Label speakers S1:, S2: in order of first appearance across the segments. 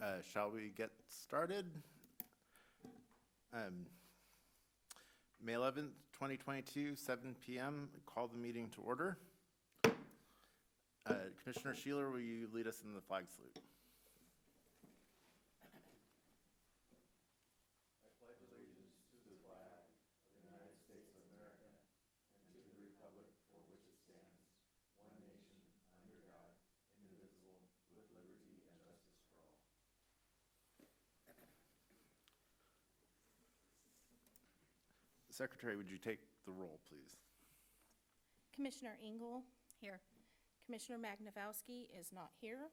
S1: Uh, Shall we get started? Um, May 11th, 2022, 7 PM, call the meeting to order. Uh, Commissioner Sheeler, will you lead us in the flag salute? Secretary, would you take the roll, please?
S2: Commissioner Engel? Here. Commissioner Magnavowski is not here.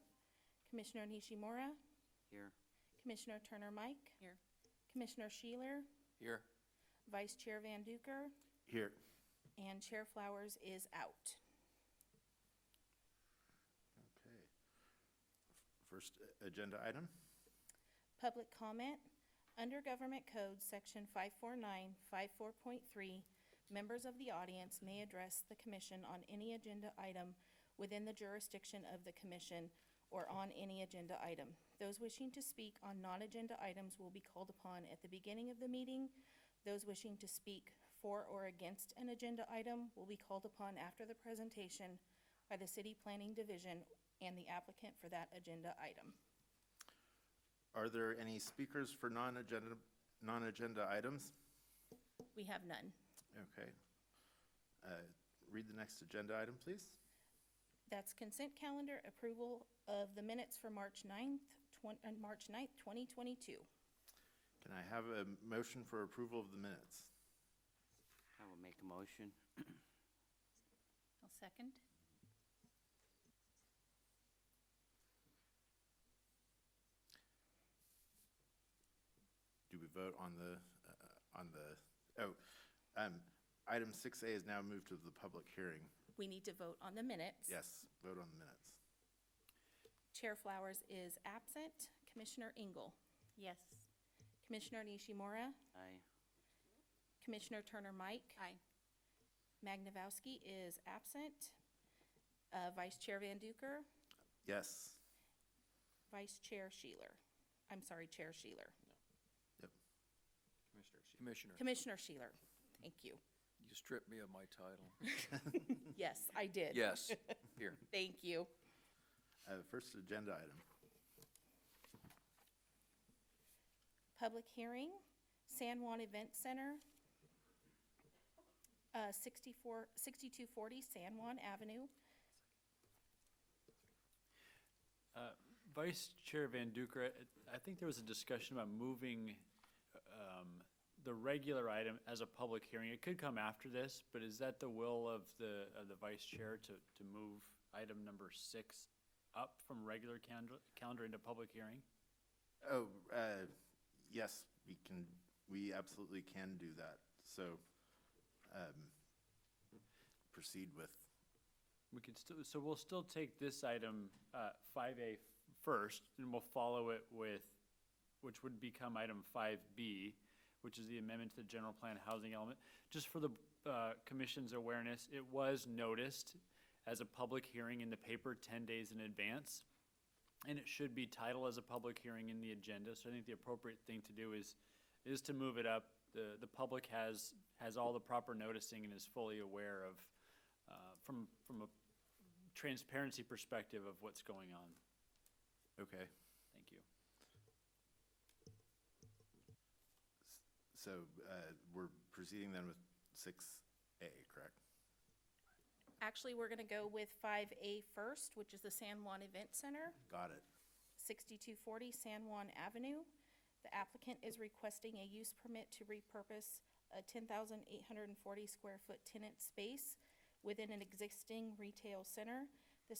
S2: Commissioner Nishimura?
S3: Here.
S2: Commissioner Turner Mike?
S3: Here.
S2: Commissioner Sheeler?
S3: Here.
S2: Vice Chair Van Duker?
S1: Here.
S2: And Chair Flowers is out.
S1: Okay. First uh, agenda item?
S2: Public comment. Under Government Code, Section 549, 54.3, members of the audience may address the commission on any agenda item within the jurisdiction of the commission or on any agenda item. Those wishing to speak on non-agenda items will be called upon at the beginning of the meeting. Those wishing to speak for or against an agenda item will be called upon after the presentation by the City Planning Division and the applicant for that agenda item.
S1: Are there any speakers for non-agenda, non-agenda items?
S2: We have none.
S1: Okay. Uh, Read the next agenda item, please.
S2: That's consent calendar approval of the minutes for March 9th, twen- uh, March 9th, 2022.
S1: Can I have a motion for approval of the minutes?
S3: I will make a motion.
S4: I'll second.
S1: Do we vote on the, uh, on the, oh, um, item 6A is now moved to the public hearing.
S2: We need to vote on the minutes.
S1: Yes, vote on the minutes.
S2: Chair Flowers is absent. Commissioner Engel?
S4: Yes.
S2: Commissioner Nishimura?
S3: Aye.
S2: Commissioner Turner Mike?
S4: Aye.
S2: Magnavowski is absent. Uh, Vice Chair Van Duker?
S1: Yes.
S2: Vice Chair Sheeler? I'm sorry, Chair Sheeler.
S1: Yep.
S5: Commissioner,
S2: Commissioner Sheeler, thank you.
S5: you stripped me of my title.
S2: Yes, I did.
S5: Yes, here.
S2: Thank you.
S1: Uh, First agenda item.
S2: Public hearing, San Juan Event Center, uh, 64 6240 San Juan Avenue.
S6: Vice Chair Van Duker, I I think there was a discussion about moving um, the regular item as a public hearing. It could come after this, but is that the will of the, of the Vice Chair to, to move item number six up from regular calendar, calendar into public hearing?
S1: Oh, uh, yes, we can, we absolutely can do that. So um, proceed with,
S6: We could still, so we'll still take this item, uh, five A first, and we'll follow it with, which would become item five B, which is the amendment to the general plan housing element. Just for the, uh, commission's awareness, it was noticed as a public hearing in the paper ten days in advance. And it should be titled as a public hearing in the agenda, so I think the appropriate thing to do is, is to move it up. The, the public has, has all the proper noticing and is fully aware of, uh, from, from a transparency perspective of what's going on.
S1: okay.
S6: Thank you.
S1: So uh, we're proceeding then with 6A, correct?
S2: Actually, we're going to go with 5A first, which is the San Juan Event Center,
S1: Got it.
S2: 6240 San Juan Avenue. The applicant is requesting a use permit to repurpose a 10,840 square foot tenant space within an existing retail center